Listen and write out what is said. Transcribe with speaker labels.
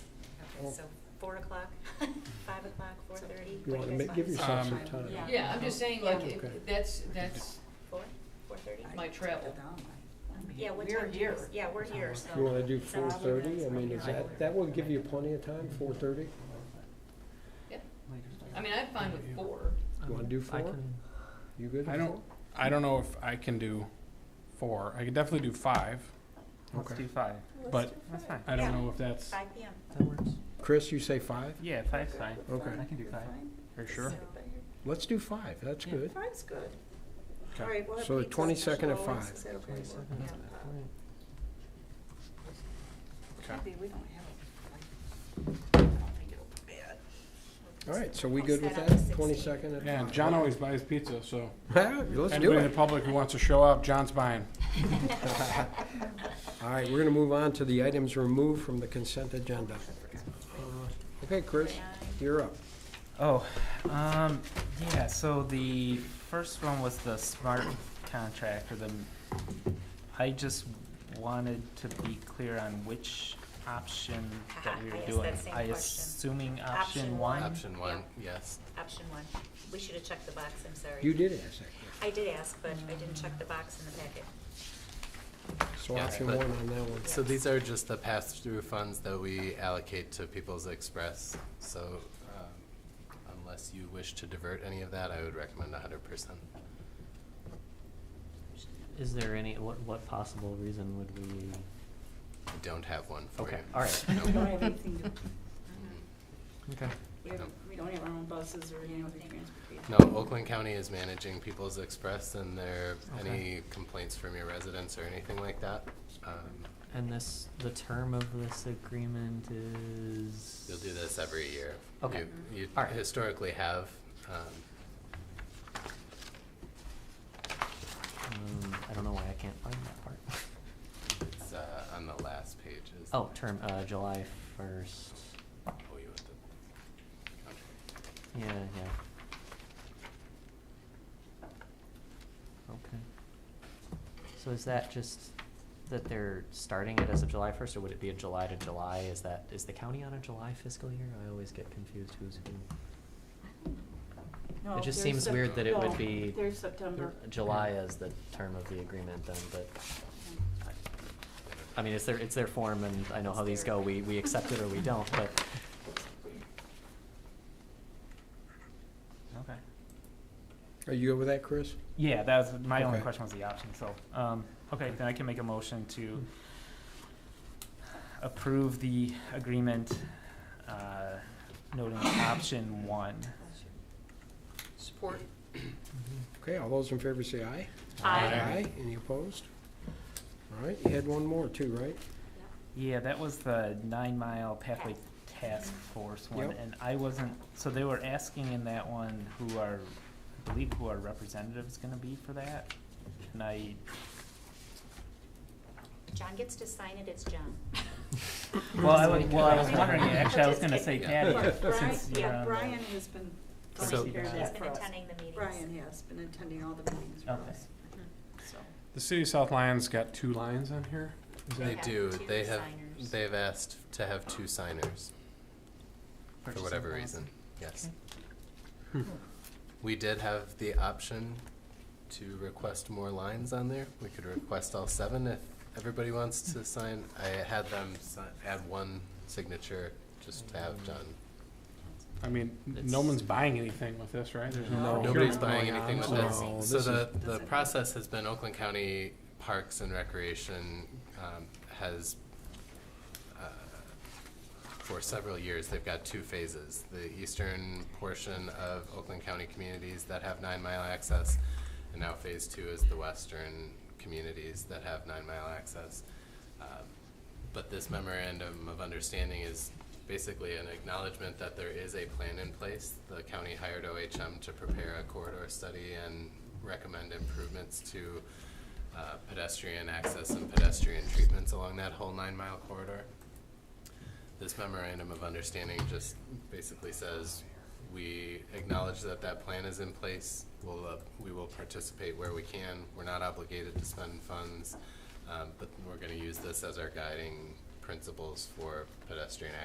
Speaker 1: so four o'clock, five o'clock, four thirty?
Speaker 2: You wanna ma- give
Speaker 3: Um,
Speaker 2: yourself some time.
Speaker 4: Yeah.
Speaker 5: Yeah, I'm just saying, like, if-
Speaker 2: Okay.
Speaker 5: that's, that's,
Speaker 1: Four, four thirty?
Speaker 5: My travel.
Speaker 1: Yeah, what
Speaker 5: we're
Speaker 1: time do you,
Speaker 5: here.
Speaker 1: yeah, we're here, so.
Speaker 2: You wanna do
Speaker 1: it's not
Speaker 2: four
Speaker 1: all
Speaker 2: thirty? I
Speaker 1: events.
Speaker 2: mean, is that, that will give you plenty of time, four thirty?
Speaker 5: yeah, I mean, I'm fine with four.
Speaker 2: You wanna do four? You good with four?
Speaker 3: I don't, I don't know if I can do four. I could definitely do five,
Speaker 6: Let's
Speaker 2: Okay.
Speaker 6: do five.
Speaker 3: but
Speaker 6: That's fine.
Speaker 3: I don't
Speaker 1: Yeah.
Speaker 3: know if that's
Speaker 1: Five P M.
Speaker 6: That works.
Speaker 2: Chris, you say five?
Speaker 6: Yeah, five's fine.
Speaker 2: Okay,
Speaker 6: I can do five.
Speaker 3: for sure.
Speaker 2: let's do five, that's
Speaker 6: Yeah.
Speaker 2: good.
Speaker 7: Five's good.
Speaker 1: All right, we'll have
Speaker 2: So the
Speaker 1: pizza
Speaker 2: 22nd at
Speaker 1: special
Speaker 2: five.
Speaker 1: hours. Is that okay?
Speaker 3: Okay.
Speaker 7: Maybe we don't have, like, I don't think it'll be bad.
Speaker 2: All right, so we
Speaker 1: Post
Speaker 2: good with
Speaker 1: that on the
Speaker 2: that?
Speaker 1: 16th.
Speaker 2: Twenty-second at five?
Speaker 3: Yeah, and John always buys pizza, so
Speaker 2: Yeah, Let's do
Speaker 3: anybody in the
Speaker 2: it.
Speaker 3: public who wants to show up, John's buying.
Speaker 2: All right, we're gonna move on to the items removed from the consent agenda. Uh, Okay, Chris, you're up.
Speaker 6: Oh, um, yeah, so the first one was the smart contract or the, I just wanted to be clear on which option that we
Speaker 1: Ah, I
Speaker 6: were
Speaker 1: asked
Speaker 6: doing.
Speaker 1: that same question.
Speaker 6: assuming
Speaker 1: Option
Speaker 6: option
Speaker 1: one.
Speaker 6: one?
Speaker 1: Option
Speaker 8: one, yes.
Speaker 1: Option one. We should have checked the box, I'm sorry.
Speaker 2: You did ask that question.
Speaker 1: I did ask, but I didn't check the box in the packet.
Speaker 2: So
Speaker 8: Yeah,
Speaker 2: option
Speaker 8: but-
Speaker 2: one on that one.
Speaker 8: So these are just the pass-through funds that we allocate to People's Express. So um, unless you wish to divert any of that, I would recommend hundred percent.
Speaker 9: Is there any, what, what possible reason would we?
Speaker 8: I don't have one for you.
Speaker 9: Okay, all right.
Speaker 7: We don't
Speaker 8: No.
Speaker 7: have anything to,
Speaker 9: Okay.
Speaker 7: we have, we don't have our own buses or any other transportation.
Speaker 8: No, Oakland County is managing People's Express and there, any complaints from your residents or anything like that, um,
Speaker 9: And this, the term of this agreement is?
Speaker 8: you'll do this every year.
Speaker 9: Okay.
Speaker 8: You you
Speaker 9: All right.
Speaker 8: historically have, um,
Speaker 9: Um, I don't know why I can't find that part.
Speaker 8: it's uh, on the last page. is-
Speaker 9: Oh, term, uh, July first,
Speaker 8: Oh, you want the contract.
Speaker 9: yeah, yeah. Okay. So is that just that they're starting it as of July first, or would it be a July to July? Is that, is the county on a July fiscal year? I always get confused who's who.
Speaker 7: No,
Speaker 9: It just
Speaker 7: there's
Speaker 9: seems
Speaker 7: Sep-
Speaker 9: weird that it would
Speaker 7: no,
Speaker 9: be.
Speaker 7: There's September.
Speaker 9: July as the term of the agreement then, but, I mean, it's their, it's their form and I know how these go, we, we accept it or we don't, but,
Speaker 6: Okay.
Speaker 2: Are you good with that, Chris?
Speaker 6: Yeah, that was my only
Speaker 2: Okay.
Speaker 6: question was the option, so, um, okay, then I can make a motion to approve the agreement, uh, noting option one.
Speaker 5: Support.
Speaker 2: Okay, all those in favor say aye.
Speaker 1: Aye.
Speaker 2: Any opposed? All right, you had one more too, right?
Speaker 6: Yeah, that was the nine mile pathway task force one,
Speaker 2: Yep.
Speaker 6: and I wasn't, so they were asking in that one who our, I believe who our representative's gonna be for that, and I,
Speaker 1: John gets to sign it, it's John.
Speaker 6: well, I was, well, I was wondering,
Speaker 1: Just
Speaker 6: actually, I was gonna say
Speaker 1: kidding.
Speaker 6: Patty,
Speaker 7: But Brian,
Speaker 6: since um, you're
Speaker 7: yeah,
Speaker 6: on.
Speaker 7: Brian
Speaker 6: the-
Speaker 7: has been
Speaker 8: So-
Speaker 7: taking care of
Speaker 1: He's
Speaker 7: that
Speaker 1: been
Speaker 7: for us.
Speaker 1: attending the meetings.
Speaker 7: Brian has been attending all the meetings for
Speaker 6: Okay.
Speaker 7: us, so.
Speaker 3: The city of South Lyon's got two lines on here. Is
Speaker 8: They
Speaker 3: that
Speaker 1: have
Speaker 8: do,
Speaker 1: two
Speaker 8: they have,
Speaker 1: signers.
Speaker 8: they've asked to have two signers, for
Speaker 6: purchasing
Speaker 8: whatever
Speaker 6: policy.
Speaker 8: reason, yes. Hmm. We did have the option to request more lines on there, we could request all seven if everybody wants to sign. I had them si- add one signature, just to have done.
Speaker 3: I mean, no
Speaker 9: It's-
Speaker 3: one's buying anything with this, right? There's
Speaker 2: No.
Speaker 3: no
Speaker 8: Nobody's
Speaker 3: procurement
Speaker 8: buying
Speaker 3: going
Speaker 8: anything
Speaker 3: on,
Speaker 8: with
Speaker 3: so-
Speaker 8: this.
Speaker 2: No,
Speaker 8: So
Speaker 2: this
Speaker 8: the,
Speaker 7: is-
Speaker 8: the process has been Oakland County Parks and Recreation um, has, uh, for several years, they've got two phases. The eastern portion of Oakland County communities that have nine mile access, and now phase two is the western communities that have nine mile access. Um, But this memorandum of understanding is basically an acknowledgement that there is a plan in place. The county hired OHM to prepare a corridor study and recommend improvements to uh, pedestrian access and pedestrian treatments along that whole nine-mile corridor. This memorandum of understanding just basically says, we acknowledge that that plan is in place. We'll, uh, we will participate where we can. We're not obligated to spend funds. Um, but we're gonna use this as our guiding principles for pedestrian